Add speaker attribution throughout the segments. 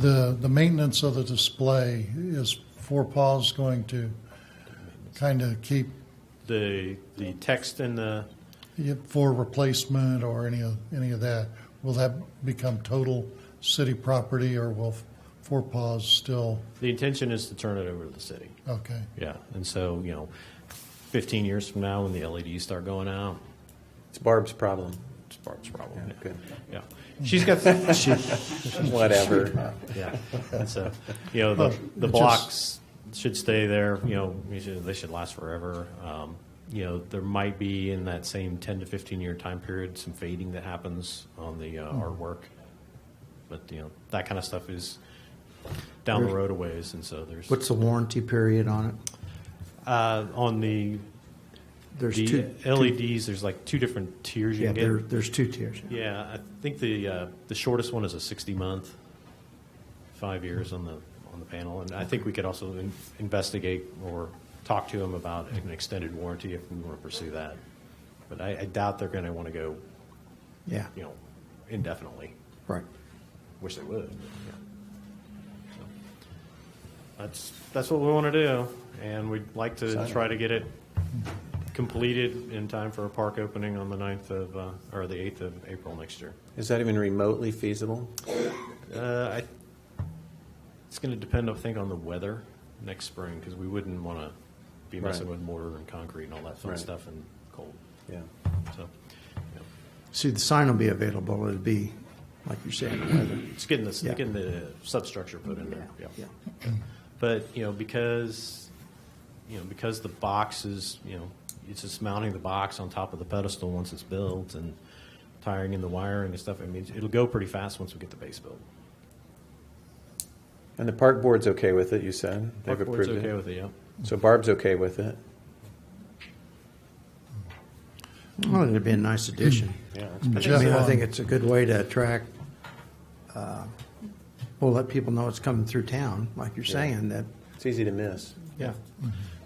Speaker 1: The, the maintenance of the display is Four Paws going to kind of keep
Speaker 2: The, the text and the,
Speaker 1: it for replacement or any of, any of that? Will that become total city property or will Four Paws still,
Speaker 2: the intention is to turn it over to the city.
Speaker 1: okay?
Speaker 2: Yeah, and so, you know, 15 years from now, when the LEDs start going out,
Speaker 3: It's Barb's problem.
Speaker 2: it's Barb's problem.
Speaker 3: Yeah, good.
Speaker 2: Yeah, she's got, she,
Speaker 3: Whatever.
Speaker 2: yeah, and so, you know,
Speaker 1: Well,
Speaker 2: the, the
Speaker 1: it just-
Speaker 2: blocks should stay there, you know, we should- they should last forever. Um, You know, there might be in that same 10 to 15-year time period, some fading that happens on the uh, artwork. But, you know, that kind of stuff is down the road a ways, and so there's,
Speaker 4: What's the warranty period on it?
Speaker 2: uh, on the
Speaker 4: There's
Speaker 2: the
Speaker 4: two.
Speaker 2: LEDs, there's like two different tiers you
Speaker 4: Yeah, there,
Speaker 2: can get.
Speaker 4: there's two tiers.
Speaker 2: Yeah, I think the uh, the shortest one is a 60 month, five years on the on the panel, and I think we could also in- investigate or talk to them about an extended warranty if we want to pursue that. But I, I doubt they're going to want to go,
Speaker 4: Yeah,
Speaker 2: you know, indefinitely.
Speaker 4: right.
Speaker 2: Wish they would. Yeah. So, That's, that's what we want to do, and we'd like to try to get it completed in time for a park opening on the 9th of, uh, or the 8th of April next year.
Speaker 3: Is that even remotely feasible?
Speaker 2: Uh, I, it's going to depend, I think, on the weather next spring, because we wouldn't want to be messing
Speaker 3: Right.
Speaker 2: with mortar and concrete and all that fun
Speaker 3: Right.
Speaker 2: stuff and cold,
Speaker 3: Yeah.
Speaker 2: so. yeah.
Speaker 4: See, the sign will be available. It'll be, like you're saying, weather.
Speaker 2: It's getting the,
Speaker 4: Yeah.
Speaker 2: getting the substructure put in there,
Speaker 4: Yeah.
Speaker 2: yeah. But, you know, because, you know, because the box is, you know, it's just mounting the box on top of the pedestal once it's built and tiring in the wiring and stuff, I mean, it'll go pretty fast once we get the base built.
Speaker 3: And the park board's okay with it, you said? They've
Speaker 2: Park board's
Speaker 3: approved
Speaker 2: okay
Speaker 3: it?
Speaker 2: with it, yeah.
Speaker 3: So Barb's okay with it?
Speaker 4: Well, it'd be a nice addition.
Speaker 3: Yeah.
Speaker 4: I mean, I think it's a good way to attract, uh, well, let people know it's coming through town, like you're saying, that,
Speaker 3: It's easy to miss.
Speaker 4: yeah.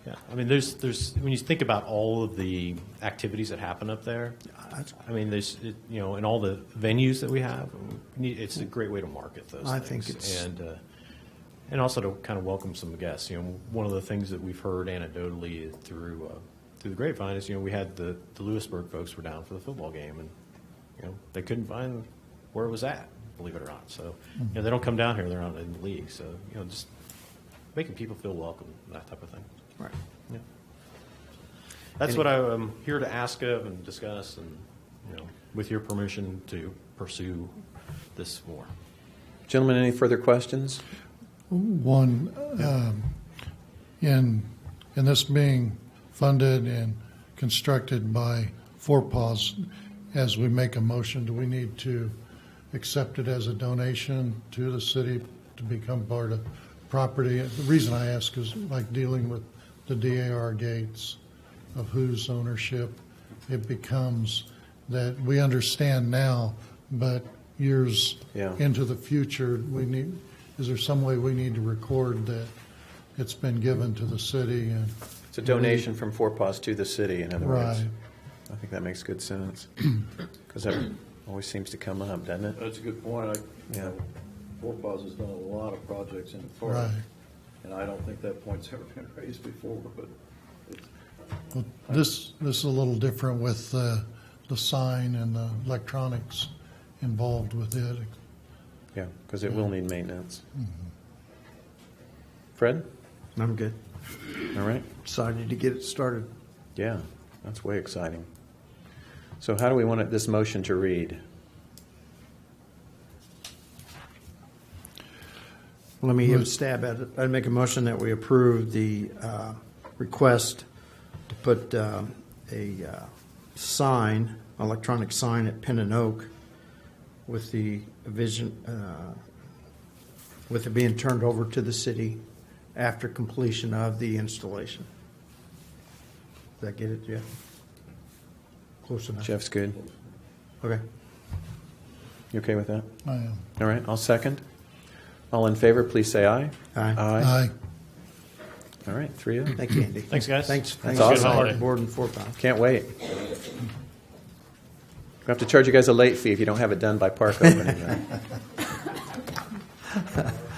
Speaker 2: Yeah, I mean, there's, there's, when you think about all of the activities that happen up there,
Speaker 4: uh, That's-
Speaker 2: I mean, there's, it- you know, and all the venues that we have, we need- it's a great way to market those
Speaker 4: I
Speaker 2: things.
Speaker 4: think it's-
Speaker 2: And, uh, and also to kind of welcome some guests, you know, one of the things that we've heard anecdotally through, uh, through the grapevine is, you know, we had the, the Lewisburg folks were down for the football game and, you know, they couldn't find where it was at, believe it or not. So, you
Speaker 4: Mm-hmm.
Speaker 2: know, they don't come down here, they're not in the league, so, you know, just making people feel welcome, that type of thing.
Speaker 4: Right.
Speaker 2: Yeah. That's what I'm here to ask of and discuss and, you know, with your permission to pursue this more.
Speaker 3: Gentlemen, any further questions?
Speaker 1: One, um, in, in this being funded and constructed by Four Paws, as we make a motion, do we need to accept it as a donation to the city to become part of property? The reason I ask is like dealing with the DAR gates of whose ownership it becomes that we understand now, but years
Speaker 3: Yeah.
Speaker 1: into the future, we need, is there some way we need to record that it's been given to the city and,
Speaker 3: It's a donation from Four Paws to the city, in other words.
Speaker 1: Right.
Speaker 3: I think that makes good sense. Because that always seems to come up, doesn't it?
Speaker 5: That's a good point. I, you
Speaker 3: Yeah.
Speaker 5: know, Four Paws has done a lot of projects in the park.
Speaker 1: Right.
Speaker 5: And I don't think that point's ever been raised before, but it's,
Speaker 1: well, this, this is a little different with the, the sign and the electronics involved with it.
Speaker 3: Yeah, because it will need maintenance. Fred?
Speaker 4: I'm good.
Speaker 3: All right.
Speaker 4: Excited to get it started.
Speaker 3: Yeah, that's way exciting. So how do we want it- this motion to read?
Speaker 4: Let me give a stab at it. I'd make a motion that we approve the uh, request to put uh, a uh, sign, electronic sign at Penn and Oak with the vision, uh, with it being turned over to the city after completion of the installation. Did I get it, Jeff? Close enough.
Speaker 3: Jeff's good.
Speaker 4: Okay.
Speaker 3: You okay with that?
Speaker 1: I am.
Speaker 3: All right, I'll second. All in favor, please say aye.
Speaker 4: Aye.
Speaker 3: Aye.
Speaker 1: Aye.
Speaker 3: All right, three of you.
Speaker 4: Thank you, Andy.
Speaker 2: Thanks, guys.
Speaker 4: Thanks.
Speaker 2: That's
Speaker 4: thanks for
Speaker 3: awesome.
Speaker 4: the hard Board and four pound.
Speaker 3: Can't wait. We'll have to charge you guys a late fee if you don't have it done by park opening. though.